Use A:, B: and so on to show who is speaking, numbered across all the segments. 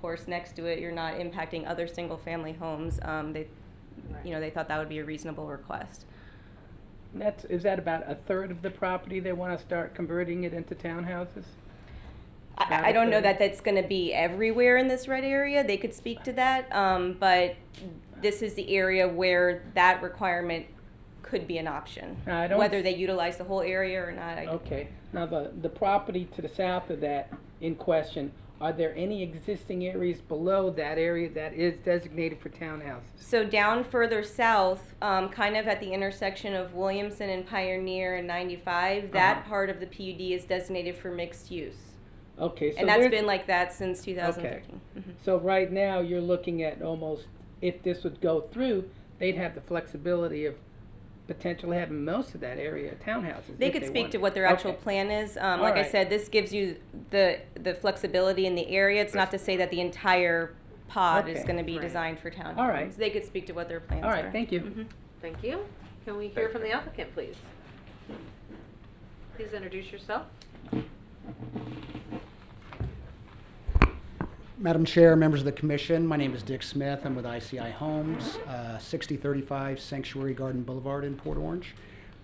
A: course next to it, you're not impacting other single-family homes. Um, They, you know, they thought that would be a reasonable request.
B: And That's, is that about a third of the property they want to start converting it into townhouses? About
A: I, I
B: a
A: don't know
B: third.
A: that that's going to be everywhere in this red area. They could speak to that, um, but this is the area where that requirement could be an option.
B: Uh, I don't
A: Whether
B: s- Oh.
A: they utilize the whole area or not, I,
B: Okay, now the, the property to the south of that in question, are there any existing areas below that area that is designated for townhouses?
A: So down further south, um, kind of at the intersection of Williamson and Pioneer and 95, that
B: Uh-huh.
A: part of the PUD is designated for mixed use.
B: Okay, so
A: and that's
B: there's-
A: been like that since 2013. Mhm.
B: So right now, you're looking at almost, if this would go through, they'd have the flexibility of potentially having most of that area townhouses.
A: They
B: if
A: could speak to
B: wanted.
A: what their actual
B: Okay.
A: plan is. Um,
B: All
A: like I
B: right.
A: said, this gives you the, the flexibility in the area. It's not to say that the entire pod is
B: Okay.
A: gonna be
C: Right.
A: designed for townhomes.
B: All right.
A: They could speak to what their plans are.
B: All right, thank you.
A: Mhm.
C: Thank you. Can we hear from the applicant, please? Please introduce yourself.
D: Madam Chair, members of the commission, my name is Dick Smith. I'm with ICI Homes, uh, 6035 Sanctuary Garden Boulevard in Port Orange.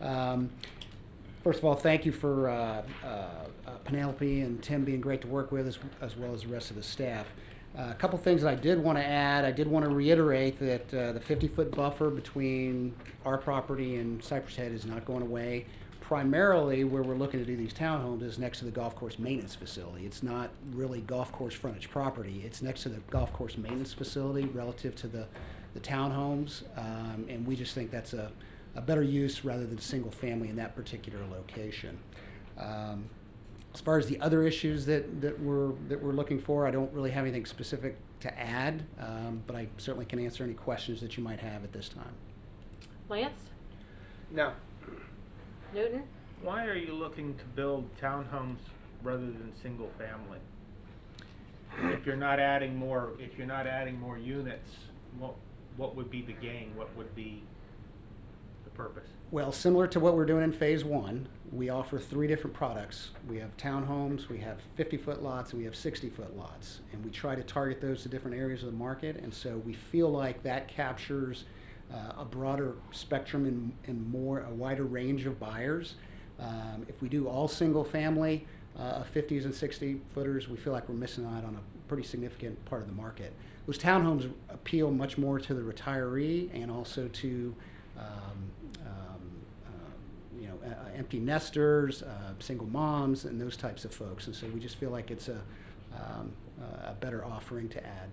D: Um, First of all, thank you for uh, uh, uh, Penelope and Tim being great to work with, as, as well as the rest of the staff. Uh, a couple things that I did want to add. I did want to reiterate that uh, the 50 foot buffer between our property and Cypress Head is not going away. Primarily, where we're looking to do these townhomes is next to the golf course maintenance facility. It's not really golf course frontage property. It's next to the golf course maintenance facility relative to the, the townhomes. Um, and we just think that's a, a better use rather than single family in that particular location. Um, as far as the other issues that, that we're that we're looking for, I don't really have anything specific to add, um, but I certainly can answer any questions that you might have at this time.
C: Lance?
E: Now,
C: Newton?
E: why are you looking to build townhomes rather than single family? If you're not adding more, if you're not adding more units, what, what would be the gain? What would be the purpose?
D: Well, similar to what we're doing in phase one, we offer three different products. We have townhomes, we have 50 foot lots, and we have 60 foot lots. And we try to target those to different areas of the market. And so we feel like that captures uh, a broader spectrum and, and more, a wider range of buyers. Um, if we do all single family, uh, of 50s and 60 footers, we feel like we're missing out on a pretty significant part of the market. Those townhomes appeal much more to the retiree and also to um, um, um, you know, uh, uh, empty nesters, uh, single moms, and those types of folks. And so we just feel like it's a, um, uh, a better offering to add.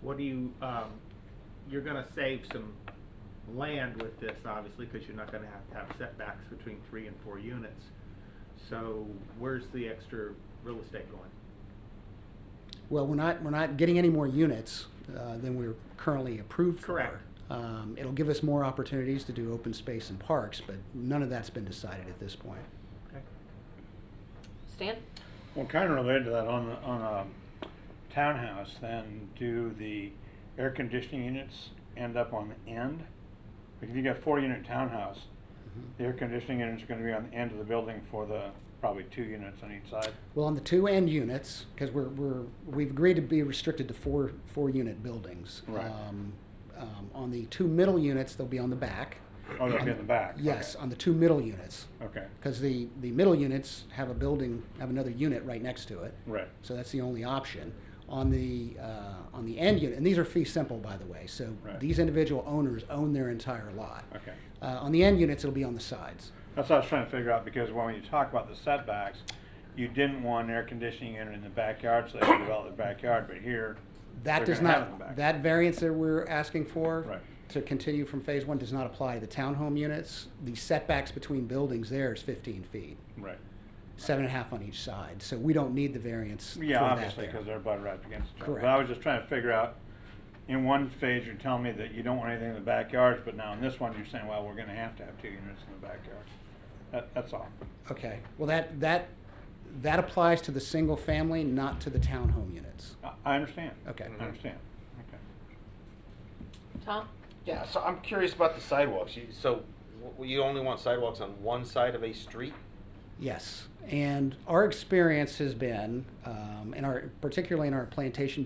E: What do you, um, you're gonna save some land with this, obviously, because you're not gonna have to have setbacks between three and four units. So where's the extra real estate going?
D: Well, we're not, we're not getting any more units uh, than we're currently approved for.
E: Correct.
D: Um, it'll give us more opportunities to do open space and parks, but none of that's been decided at this point.
E: Okay.
C: Stan?
F: Well, kind of related to that, on, the- on a townhouse, then do the air conditioning units end up on the end? Like if you got four unit townhouse, the air conditioning units are gonna be on the end of the building for the, probably two units on each side.
D: Well, on the two end units, because we're, we're, we've agreed to be restricted to four, four unit buildings.
F: Right.
D: Um, um, On the two middle units, they'll be on the back.
F: Oh, they'll be in the back?
D: Yes, on the two middle units,
F: Okay,
D: because the, the middle units have a building, have another unit right next to it.
F: right.
D: So that's the only option. On the, uh, on the end unit, and these are fee simple, by the way, so
F: Right.
D: these individual owners own their entire lot.
F: Okay.
D: Uh, On the end units, it'll be on the sides.
F: That's what I was trying to figure out, because when you talk about the setbacks, you didn't want an air conditioning unit in the backyard, so they could develop the backyard, but here.
D: That
F: they're
D: does
F: gonna have it in the
D: not,
F: back.
D: that variance that we're asking for
F: Right.
D: to continue from phase one does not apply to the townhome units. The setbacks between buildings there is fifteen feet,
F: Right.
D: seven and a half on each side, so we don't need the variance for
F: Yeah,
D: that
F: obviously,
D: there.
F: because they're butt right up against each other. But I
D: Correct.
F: was just trying to figure out, in one phase, you're telling me that you don't want anything in the backyards, but now in this one, you're saying, well, we're gonna have to have two units in the backyard. That, that's all.
D: Okay, well, that, that, that applies to the single family, not to the townhome units.
F: I, I understand.
D: Okay.
F: I understand, okay.
C: Tom?
G: Yeah, so I'm curious about the sidewalks. You, so w- you only want sidewalks on one side of a street?
D: Yes, and our experience has been, um, in our, particularly in our plantation